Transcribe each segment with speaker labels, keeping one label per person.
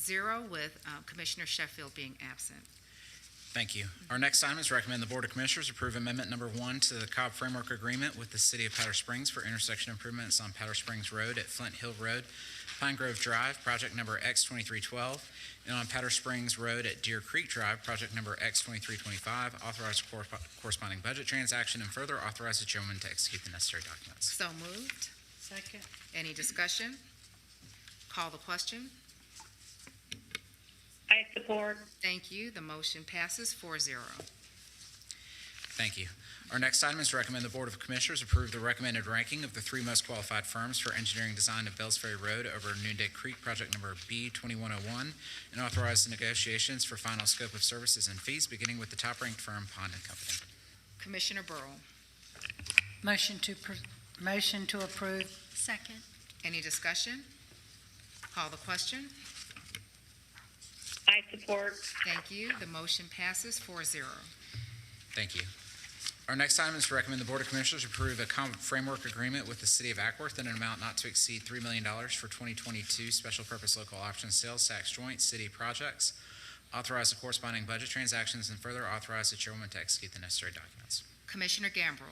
Speaker 1: zero, with uh, Commissioner Sheffield being absent.
Speaker 2: Thank you. Our next item is recommend the Board of Commissioners approve amendment number one to the Cobb Framework Agreement with the City of Powder Springs for intersection improvements on Powder Springs Road at Flint Hill Road, Pine Grove Drive, project number X twenty-three twelve, and on Powder Springs Road at Deer Creek Drive, project number X twenty-three twenty-five. Authorize cor- corresponding budget transaction and further authorize the chairman to execute the necessary documents.
Speaker 1: So moved.
Speaker 3: Second.
Speaker 1: Any discussion? Call the question.
Speaker 3: I support.
Speaker 1: Thank you. The motion passes 4-0.
Speaker 2: Thank you. Our next item is recommend the Board of Commissioners approve the recommended ranking of the three most qualified firms for engineering design of Bells Ferry Road over Noonday Creek, project number B twenty-one oh one, and authorize the negotiations for final scope of services and fees, beginning with the top-ranked firm, Pond and Company.
Speaker 1: Commissioner Burrow,
Speaker 3: Motion to, pr- motion to approve.
Speaker 4: Second.
Speaker 1: any discussion? Call the question.
Speaker 5: I support.
Speaker 1: Thank you. The motion passes 4-0.
Speaker 2: Thank you. Our next item is to recommend the Board of Commissioners approve a common framework agreement with the City of Ackworth in an amount not to exceed $3 million for 2022 special purpose local option sales tax joint city projects. Authorize the corresponding budget transactions and further authorize the chairwoman to execute the necessary documents.
Speaker 1: Commissioner Gambrell,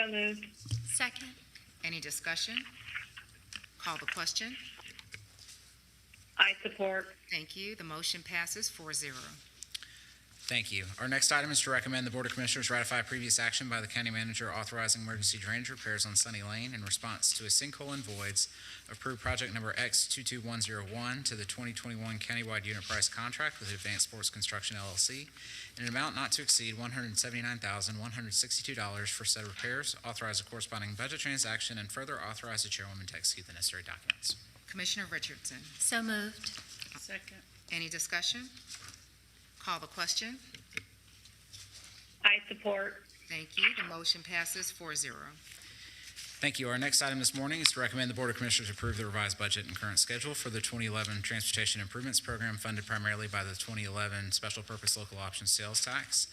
Speaker 5: So moved.
Speaker 4: Second.
Speaker 1: any discussion? Call the question.
Speaker 5: I support.
Speaker 1: Thank you. The motion passes 4-0.
Speaker 2: Thank you. Our next item is to recommend the Board of Commissioners ratify previous action by the county manager authorizing emergency drainage repairs on Sunny Lane in response to a sinkhole and voids. Approve project number X two-two-one-zero-one to the twenty-twenty-one countywide unit price contract with Advanced Sports Construction LLC in an amount not to exceed one hundred and seventy-nine thousand, one hundred and sixty-two dollars for said repairs. Authorize a corresponding budget transaction and further authorize the chairwoman to execute the necessary documents.
Speaker 1: Commissioner Richardson,
Speaker 4: So moved.
Speaker 3: Second.
Speaker 1: any discussion? Call the question.
Speaker 5: I support.
Speaker 1: Thank you. The motion passes 4-0.
Speaker 2: Thank you. Our next item this morning is to recommend the Board of Commissioners approve the revised budget and current schedule for the 2011 Transportation Improvements Program funded primarily by the 2011 Special Purpose Local Option Sales Tax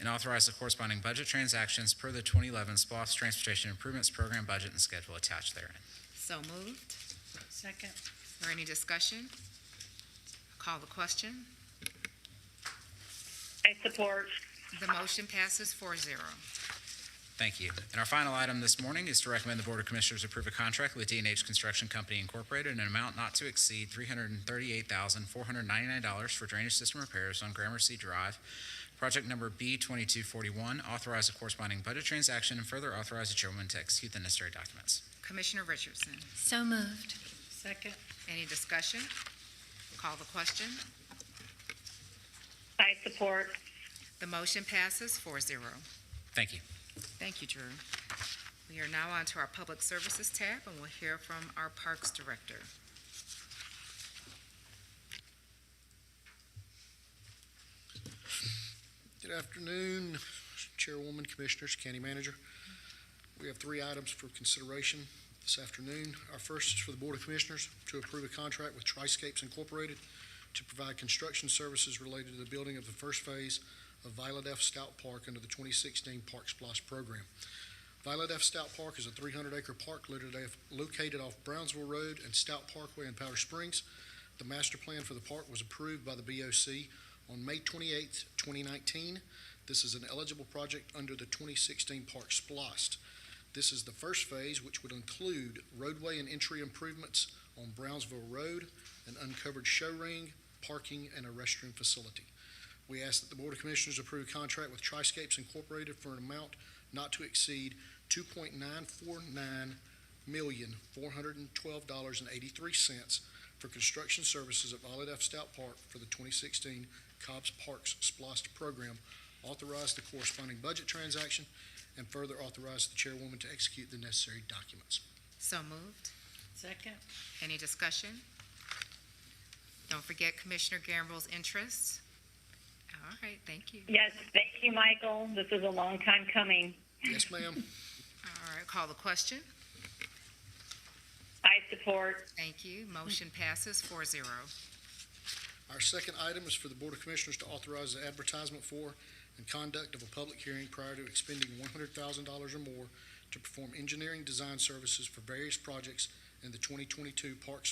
Speaker 2: and authorize the corresponding budget transactions per the 2011 SPOS Transportation Improvements Program budget and schedule attached therein.
Speaker 1: So moved.
Speaker 3: Second.
Speaker 1: Or any discussion? Call the question.
Speaker 5: I support.
Speaker 1: The motion passes 4-0.
Speaker 2: Thank you. And our final item this morning is to recommend the Board of Commissioners approve a contract with D&H Construction Company Incorporated in an amount not to exceed $338,499 for drainage system repairs on Gramercy Drive, project number B2241. Authorize a corresponding budget transaction and further authorize the chairwoman to execute the necessary documents.
Speaker 1: Commissioner Richardson,
Speaker 4: So moved.
Speaker 3: Second.
Speaker 1: any discussion? Call the question.
Speaker 5: I support.
Speaker 1: The motion passes 4-0.
Speaker 2: Thank you.
Speaker 1: Thank you, Drew. We are now on to our Public Services tab, and we'll hear from our Parks Director.
Speaker 6: Good afternoon, Chairwoman, Commissioners, County Manager. We have three items for consideration this afternoon. Our first is for the Board of Commissioners to approve a contract with Triscapes Incorporated to provide construction services related to the building of the first phase of Violet F. Stout Park under the 2016 Park Splash Program. Violet F. Stout Park is a 300-acre park located- located off Brownsville Road and Stout Parkway in Powder Springs. The master plan for the park was approved by the BOC on May 28, 2019. This is an eligible project under the 2016 Park Splost. This is the first phase, which would include roadway and entry improvements on Brownsville Road, an uncovered show ring, parking, and a restroom facility. We ask that the Board of Commissioners approve a contract with Triscapes Incorporated for an amount not to exceed $2.949,412.83 for construction services at Violet F. Stout Park for the 2016 Cobb's Parks Splost Program, authorize the corresponding budget transaction, and further authorize the chairwoman to execute the necessary documents.
Speaker 1: So moved.
Speaker 3: Second.
Speaker 1: Any discussion? Don't forget Commissioner Gambrell's interests. All right, thank you.
Speaker 5: Yes, thank you, Michael. This is a long time coming.
Speaker 6: Yes, ma'am.
Speaker 1: All right, call the question.
Speaker 5: I support.
Speaker 1: Thank you. Motion passes 4-0.
Speaker 6: Our second item is for the Board of Commissioners to authorize the advertisement for and conduct of a public hearing prior to expending $100,000 or more to perform engineering design services for various projects in the 2022 Parks